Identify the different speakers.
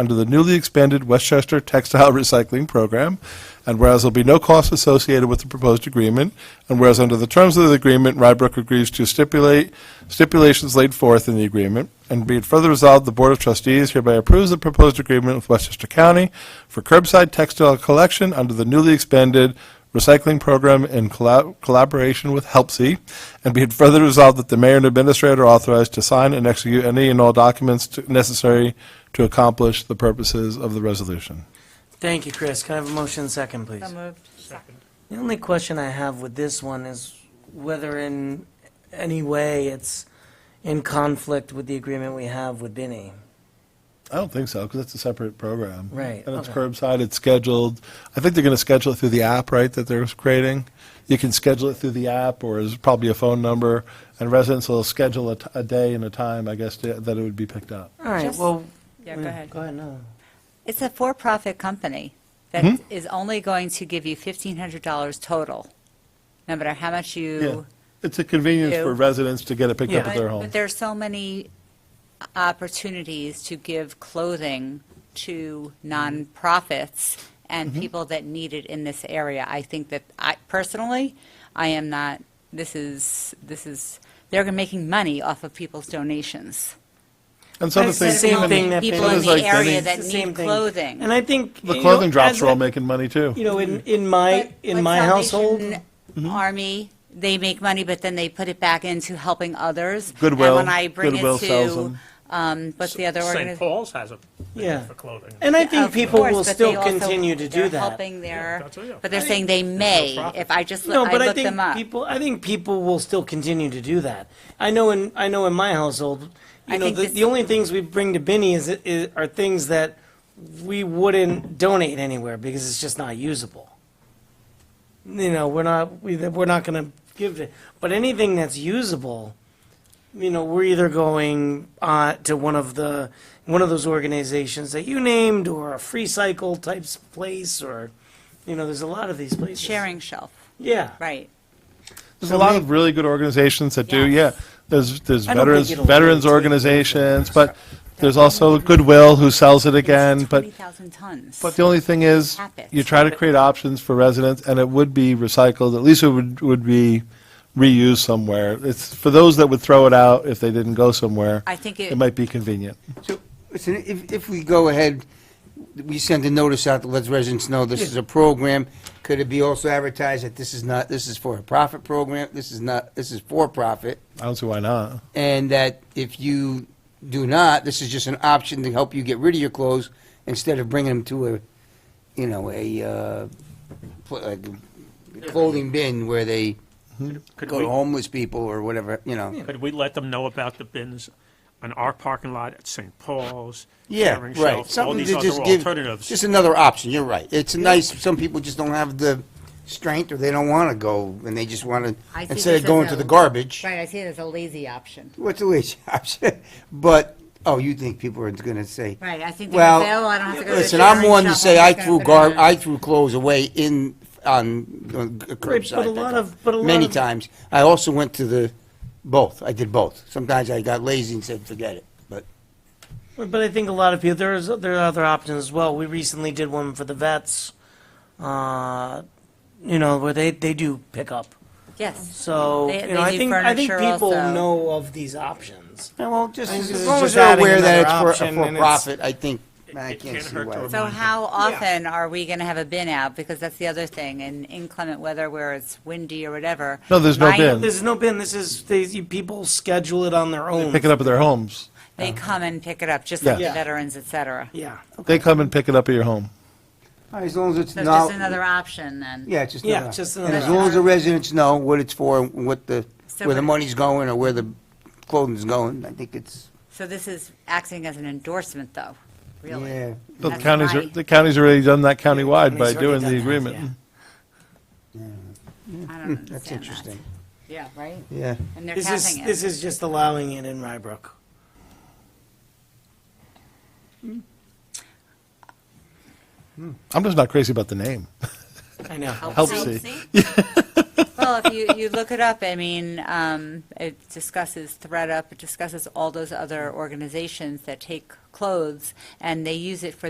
Speaker 1: under the newly expanded Westchester Textile Recycling Program, and whereas there'll be no cost associated with the proposed agreement, and whereas under the terms of the agreement, Rybrook agrees to stipulate stipulations laid forth in the agreement, and be it further resolved, the Board of Trustees hereby approves the proposed agreement with Westchester County for curbside textile collection under the newly expanded recycling program in colla- collaboration with HelpSee, and be it further resolved that the mayor and administrator are authorized to sign and execute any and all documents to- necessary to accomplish the purposes of the resolution.
Speaker 2: Thank you, Chris. Can I have a motion second, please?
Speaker 3: So moved.
Speaker 2: The only question I have with this one is whether in any way it's in conflict with the agreement we have with Binny.
Speaker 1: I don't think so, because it's a separate program.
Speaker 2: Right,
Speaker 1: And it's
Speaker 2: okay.
Speaker 1: curbside, it's scheduled. I think they're going to schedule it through the app, right, that they're creating? You can schedule it through the app, or there's probably a phone number, and residents will schedule a t- a day and a time, I guess, to- that it would be picked up.
Speaker 2: All right,
Speaker 3: Just-
Speaker 2: well.
Speaker 3: Yeah, go ahead.
Speaker 2: Go ahead, no.
Speaker 4: It's a for-profit company
Speaker 1: Hmm?
Speaker 4: that is only going to give you $1,500 total, no matter how much
Speaker 1: Yeah,
Speaker 4: you.
Speaker 1: It's a convenience
Speaker 4: Ew.
Speaker 1: for residents to get it picked up
Speaker 2: Yeah.
Speaker 1: at their
Speaker 4: But
Speaker 1: home.
Speaker 4: but there's so many opportunities to give clothing to nonprofits and
Speaker 1: Mm-hmm.
Speaker 4: people that need it in this area. I think that, I, personally, I am not, this is, this is, they're making money off of people's donations.
Speaker 1: And some of the things,
Speaker 2: It's the same
Speaker 1: even-
Speaker 2: thing that
Speaker 4: People
Speaker 1: Binny-
Speaker 4: in
Speaker 1: It's like
Speaker 4: the area
Speaker 1: Binny.
Speaker 4: that
Speaker 2: It's the same
Speaker 4: need
Speaker 2: thing.
Speaker 4: clothing.
Speaker 2: And I think.
Speaker 1: the
Speaker 2: you know,
Speaker 1: clothing drops
Speaker 2: as
Speaker 1: are
Speaker 2: a-
Speaker 1: all making money, too.
Speaker 2: You know, in, in my,
Speaker 4: But-
Speaker 2: in
Speaker 4: but
Speaker 2: my household,
Speaker 4: Salvation Army, they make money, but then they put it back into helping others.
Speaker 1: Goodwill-
Speaker 4: And when I bring
Speaker 1: Goodwill
Speaker 4: it
Speaker 1: sells
Speaker 4: to,
Speaker 1: them.
Speaker 4: um, what's the other
Speaker 5: St.
Speaker 4: organization?
Speaker 5: Paul's has a
Speaker 2: Yeah.
Speaker 5: thing for clothing.
Speaker 2: and I think people will still continue to do
Speaker 4: They're
Speaker 2: that.
Speaker 4: helping their,
Speaker 5: that's it, yeah.
Speaker 4: but they're saying they may, if I just,
Speaker 2: No,
Speaker 4: look- I
Speaker 2: but I
Speaker 4: look them
Speaker 2: think
Speaker 4: up.
Speaker 2: people, I think people will still continue to do that. I know in, I know in my household, you
Speaker 4: I
Speaker 2: know,
Speaker 4: think
Speaker 2: the,
Speaker 4: this-
Speaker 2: the only things we bring to Benny is, is, are things that we wouldn't donate anywhere because it's just not usable. You know, we're not, we, we're not gonna give it, but anything that's usable, you know, we're either going, uh, to one of the, one of those organizations that you named or a free cycle types place or, you know, there's a lot of these places.
Speaker 4: Sharing shelf,
Speaker 2: Yeah.
Speaker 4: right.
Speaker 1: There's a lot of really good organizations that do, yeah.
Speaker 4: Yes.
Speaker 1: There's, there's
Speaker 2: I don't think
Speaker 1: veterans,
Speaker 2: it'll really
Speaker 1: veterans
Speaker 2: take
Speaker 1: organizations, but there's also Goodwill who sells it again, but,
Speaker 4: Twenty thousand tons.
Speaker 1: but the only thing is,
Speaker 4: Habits.
Speaker 1: you try to create options for residents, and it would be recycled, at least it would, would be reused somewhere. It's, for those that would throw it out if they didn't go somewhere,
Speaker 4: I think it-
Speaker 1: it might be convenient.
Speaker 6: So, listen, if, if we go ahead, we send a notice out that lets residents know this is a program. Could it be also advertised that this is not, this is for a profit program, this is not, this is for profit?
Speaker 1: I don't see why not.
Speaker 6: And that if you do not, this is just an option to help you get rid of your clothes instead of bringing them to a, you know, a, uh, pl- like a clothing bin where they
Speaker 5: Could
Speaker 6: go
Speaker 5: we,
Speaker 6: to homeless people or whatever, you know.
Speaker 5: could we let them know about the bins on our parking lot at St. Paul's?
Speaker 6: Yeah,
Speaker 5: Caring
Speaker 6: right.
Speaker 5: Shelf, All
Speaker 6: Something
Speaker 5: these
Speaker 6: to
Speaker 5: other
Speaker 6: just give,
Speaker 5: alternatives.
Speaker 6: just another option, you're right. It's nice, some people just don't have the strength, or they don't want to go, and they just want
Speaker 4: I
Speaker 6: to,
Speaker 4: see
Speaker 6: instead
Speaker 4: this
Speaker 6: of going
Speaker 4: as
Speaker 6: to
Speaker 4: a-
Speaker 6: the garbage.
Speaker 4: Right, I see it as a lazy option.
Speaker 6: What's the least option? But, oh, you think people are going to say,
Speaker 4: Right, I think they
Speaker 6: well,
Speaker 4: say, oh, I don't have to go to the
Speaker 6: listen, I'm
Speaker 4: sharing
Speaker 6: one to
Speaker 4: shop,
Speaker 6: say
Speaker 4: I'm
Speaker 6: I
Speaker 4: just
Speaker 6: threw
Speaker 4: gonna put it
Speaker 6: gar,
Speaker 4: in a-
Speaker 6: I threw clothes away in, on on g-
Speaker 2: Right,
Speaker 6: curbside.
Speaker 2: but a lot
Speaker 6: pickup
Speaker 2: of, but a lot of.
Speaker 6: Many times. I also went to the, both, I did both. Sometimes I got lazy and said, forget it, but.
Speaker 2: But I think a lot of people, there's, there are other options as well. We recently did one for the vets, uh, you know, where they, they do pickup.
Speaker 4: Yes.
Speaker 2: So,
Speaker 4: They-
Speaker 2: you know,
Speaker 4: they
Speaker 2: I
Speaker 4: do
Speaker 2: think, I think
Speaker 4: furniture
Speaker 2: people
Speaker 4: also.
Speaker 2: know of these options.
Speaker 6: Yeah, well, just,
Speaker 2: I think
Speaker 6: as
Speaker 2: this
Speaker 6: as
Speaker 2: is
Speaker 6: long
Speaker 2: just
Speaker 6: as they're
Speaker 2: adding
Speaker 6: aware that
Speaker 2: another
Speaker 6: it's for,
Speaker 2: option, and
Speaker 6: for
Speaker 2: it's-
Speaker 6: profit, I think, I
Speaker 5: it
Speaker 6: can't
Speaker 5: can't
Speaker 6: see
Speaker 5: hurt to
Speaker 6: why.
Speaker 4: So
Speaker 5: Remind
Speaker 4: how often are we going to have a bin out? Because that's the other thing, in inclement weather where it's windy or whatever.
Speaker 1: No, there's no
Speaker 4: my-
Speaker 1: bin.
Speaker 2: This is no bin, this is, they, you- people schedule it on their own.
Speaker 1: Pick it up at their homes.
Speaker 4: They come and pick it up, just like the
Speaker 1: Yeah.
Speaker 2: Yeah.
Speaker 4: veterans, et cetera.
Speaker 2: Yeah.
Speaker 1: They come and pick it up at your home.
Speaker 6: As long as it's
Speaker 4: So it's just
Speaker 6: not,
Speaker 4: another option then.
Speaker 6: yeah, it's just
Speaker 2: Yeah,
Speaker 6: another-
Speaker 2: just
Speaker 6: And
Speaker 2: another
Speaker 6: as long as the residents know what it's for, and what the,
Speaker 4: So
Speaker 6: where the
Speaker 4: what-
Speaker 6: money's going or where the clothing's going, I think it's,
Speaker 4: So this is acting as an endorsement, though, really.
Speaker 6: yeah.
Speaker 1: The
Speaker 4: That's
Speaker 1: counties, are-
Speaker 4: right.
Speaker 1: the counties already done that countywide by
Speaker 2: County's already
Speaker 1: doing
Speaker 2: done
Speaker 1: the
Speaker 2: that,
Speaker 1: agreement. Hmm.
Speaker 4: I don't understand that.
Speaker 6: That's interesting,
Speaker 4: Yeah, right?
Speaker 6: yeah.
Speaker 4: And they're
Speaker 2: This is,
Speaker 4: passing
Speaker 2: this
Speaker 4: it.
Speaker 2: is just allowing it in Rybrook.
Speaker 1: I'm just not crazy about the name.
Speaker 2: I know.
Speaker 1: Helps see.
Speaker 4: Well, Well, if you, you look it up, I mean, um, it discusses ThreadUp, it discusses all those other organizations that take clothes, and they use it for